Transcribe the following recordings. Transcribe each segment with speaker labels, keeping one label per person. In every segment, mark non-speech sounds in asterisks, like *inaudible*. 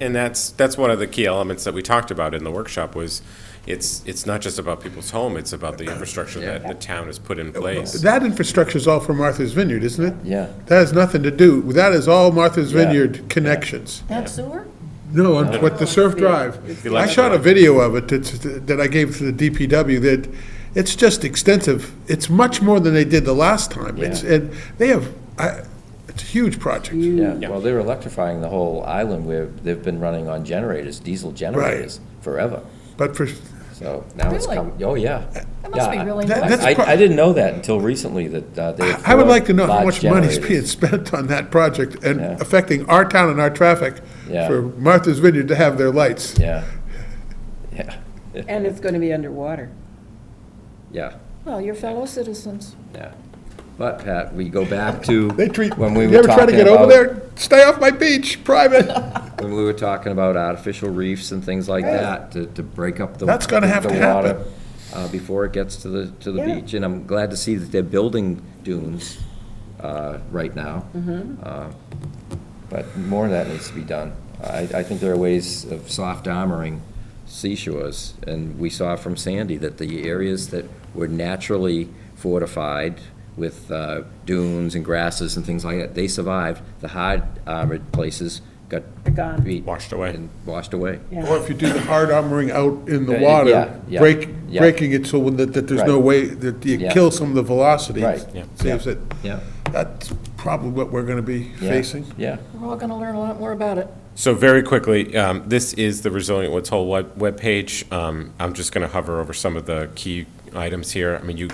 Speaker 1: And that's, that's one of the key elements that we talked about in the workshop was it's, it's not just about people's home, it's about the infrastructure that the town has put in place.
Speaker 2: That infrastructure is all from Martha's Vineyard, isn't it?
Speaker 3: Yeah.
Speaker 2: That has nothing to do, that is all Martha's
Speaker 3: Yeah.
Speaker 2: Vineyard connections.
Speaker 4: That sewer?
Speaker 2: No, on what, the Surf Drive. I shot a video of it that, that I gave to the DPW that, it's just extensive. It's much more than they did the last time. It's,
Speaker 3: Yeah.
Speaker 2: and they have, I, it's a huge project.
Speaker 3: Yeah, well, they're electrifying the whole island where they've been running on generators, diesel generators, forever.
Speaker 2: But for,
Speaker 3: So now it's
Speaker 4: Really?
Speaker 3: come, oh, yeah.
Speaker 4: That must be
Speaker 3: Yeah, I-
Speaker 4: really
Speaker 2: That-
Speaker 4: nice.
Speaker 2: that's
Speaker 3: I,
Speaker 2: pro-
Speaker 3: I didn't know that until recently that uh, they. have
Speaker 2: I would
Speaker 3: four
Speaker 2: like to know how
Speaker 3: large
Speaker 2: much money is
Speaker 3: generators.
Speaker 2: being spent on that project and
Speaker 3: Yeah.
Speaker 2: affecting our town and our traffic
Speaker 3: Yeah.
Speaker 2: for Martha's Vineyard to have their
Speaker 3: *laughs*
Speaker 2: lights.
Speaker 3: Yeah, yeah,
Speaker 5: And it's going to be underwater.
Speaker 3: yeah,
Speaker 4: Well, your fellow citizens.
Speaker 3: yeah. But Pat, we go back to
Speaker 2: They treat,
Speaker 3: when we
Speaker 2: you
Speaker 3: were
Speaker 2: ever try to
Speaker 3: talking
Speaker 2: get over
Speaker 3: about-
Speaker 2: there? Stay off my beach, private.
Speaker 3: When we were talking about artificial reefs and things like that, to, to break up the.
Speaker 2: That's gonna have
Speaker 3: the
Speaker 2: to
Speaker 3: water,
Speaker 2: happen.
Speaker 3: Uh, before it gets to the, to the
Speaker 5: Yeah.
Speaker 3: beach, and I'm glad to see that they're building dunes, uh, right now.
Speaker 2: Mm-hmm.
Speaker 3: Uh, But more of that needs to be done. I, I think there are ways of soft armoring seashores, and we saw from Sandy that the areas that were naturally fortified with uh, dunes and grasses and things like that, they survived. The hard armored places got
Speaker 5: They're gone.
Speaker 3: beat
Speaker 1: Washed away.
Speaker 3: and washed away.
Speaker 2: Or if you do the hard armoring out in the
Speaker 3: Uh, yeah,
Speaker 2: water,
Speaker 3: yeah,
Speaker 2: break,
Speaker 3: yeah.
Speaker 2: breaking it so when that, that there's no
Speaker 3: Right.
Speaker 2: way, that you
Speaker 3: Yeah.
Speaker 2: kill some of the velocity.
Speaker 3: Right.
Speaker 1: Yeah.
Speaker 2: Saves it.
Speaker 3: Yeah.
Speaker 2: That's probably what we're gonna be
Speaker 3: Yeah,
Speaker 2: facing.
Speaker 3: Yeah,
Speaker 4: We're all going to learn a lot more about it.
Speaker 1: So very quickly, um, this is the Resilient Woods Hole web, webpage. Um, I'm just gonna hover over some of the key items here. I mean, you,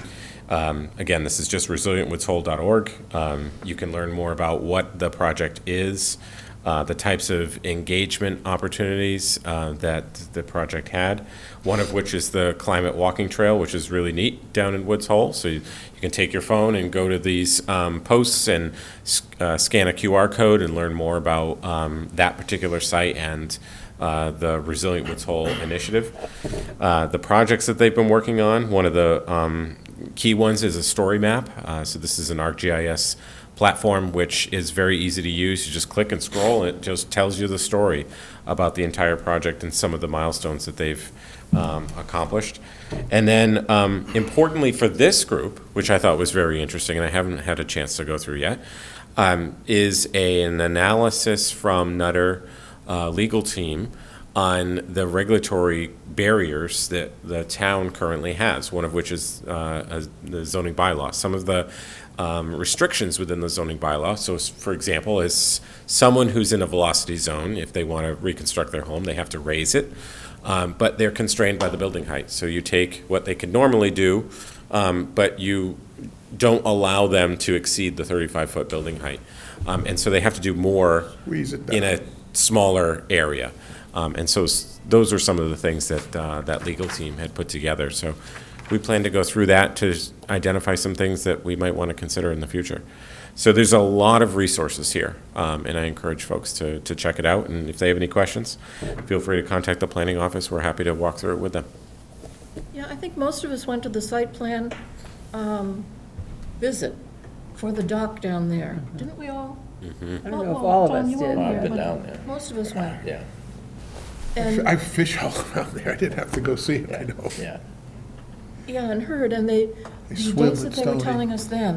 Speaker 1: um, again, this is just resilientwoodshole.org. Um, you can learn more about what the project is, uh, the types of engagement opportunities, uh, that the project had. One of which is the climate walking trail, which is really neat down in Woods Hole. So you, you can take your phone and go to these, um, posts and s- uh, scan a QR code and learn more about um, that particular site and uh, the Resilient Woods Hole initiative. Uh, the projects that they've been working on, one of the um, key ones is a story map. Uh, so this is an ArcGIS platform which is very easy to use. You just click and scroll, and it just tells you the story about the entire project and some of the milestones that they've um, accomplished. And then, um, importantly for this group, which I thought was very interesting, and I haven't had a chance to go through yet, um, is a, an analysis from Nutter uh, legal team on the regulatory barriers that the town currently has, one of which is uh, a- the zoning bylaw. Some of the um, restrictions within the zoning bylaw, so s- for example, is someone who's in a velocity zone, if they want to reconstruct their home, they have to raise it, um, but they're constrained by the building height. So you take what they could normally do, um, but you don't allow them to exceed the 35-foot building height. Um, And so they have to do more
Speaker 2: Squeeze it
Speaker 1: in
Speaker 2: down.
Speaker 1: a smaller area. Um, And so s- those are some of the things that, uh, that legal team had put together. So we plan to go through that to s- identify some things that we might want to consider in the future. So there's a lot of resources here, um, and I encourage folks to, to check it out. And if they have any questions, feel free to contact the planning office. We're happy to walk through it with them.
Speaker 4: Yeah, I think most of us went to the site plan um, visit for the dock down there. Didn't we all?
Speaker 5: I don't know if all of us did.
Speaker 3: I've been down there,
Speaker 4: Most of us went.
Speaker 3: yeah,
Speaker 4: And,
Speaker 2: I fish all *laughs* around there, I didn't have to go see it, I know.
Speaker 3: yeah.
Speaker 4: yeah, and heard, and they, the
Speaker 2: swim at
Speaker 4: dates that they were
Speaker 2: Stoney.
Speaker 4: telling us then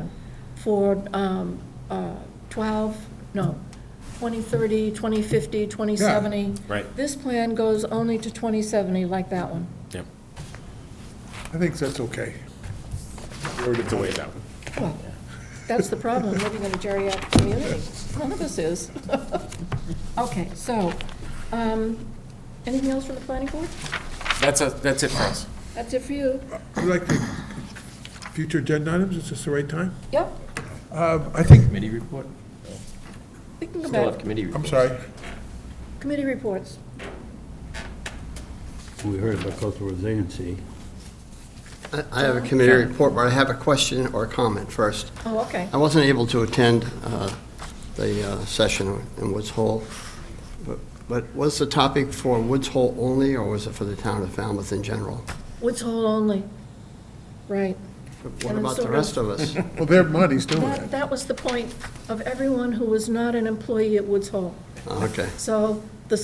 Speaker 4: for um, uh, 12, no, 2030, 2050, 2070.
Speaker 1: right.
Speaker 4: This plan goes only to 2070, like that one.
Speaker 1: Yep.
Speaker 2: I think that's okay.
Speaker 1: It's a ways out.
Speaker 4: Well, that's the problem, living in a geriatric community. None of us is. *laughs* Okay, so, um, anything else from the planning board?
Speaker 1: That's, a- that's it for us.
Speaker 4: That's it for you?
Speaker 2: Would you like to, future agenda items, is this the right time?
Speaker 4: Yep,
Speaker 2: Um, I think,
Speaker 3: Committee report?
Speaker 4: we can go
Speaker 3: Still have
Speaker 4: back.
Speaker 3: committee
Speaker 2: I'm
Speaker 3: report.
Speaker 2: sorry,
Speaker 4: Committee reports.
Speaker 6: We heard about cultural resiliency.
Speaker 7: I- I have a committee report, but I have a question or a comment first.
Speaker 4: Oh, okay.
Speaker 7: I wasn't able to attend uh, the uh, session in Woods Hole, but- but was the topic for Woods Hole only, or was it for the town of Falmouth in general?
Speaker 4: Woods Hole only. Right.
Speaker 7: What
Speaker 4: And
Speaker 7: about the
Speaker 4: sort of-
Speaker 7: rest
Speaker 2: *laughs*
Speaker 7: of us?
Speaker 2: well, their money's doing it.
Speaker 4: That, that was the point of everyone who was not an employee at Woods Hole.
Speaker 7: Okay.
Speaker 4: So the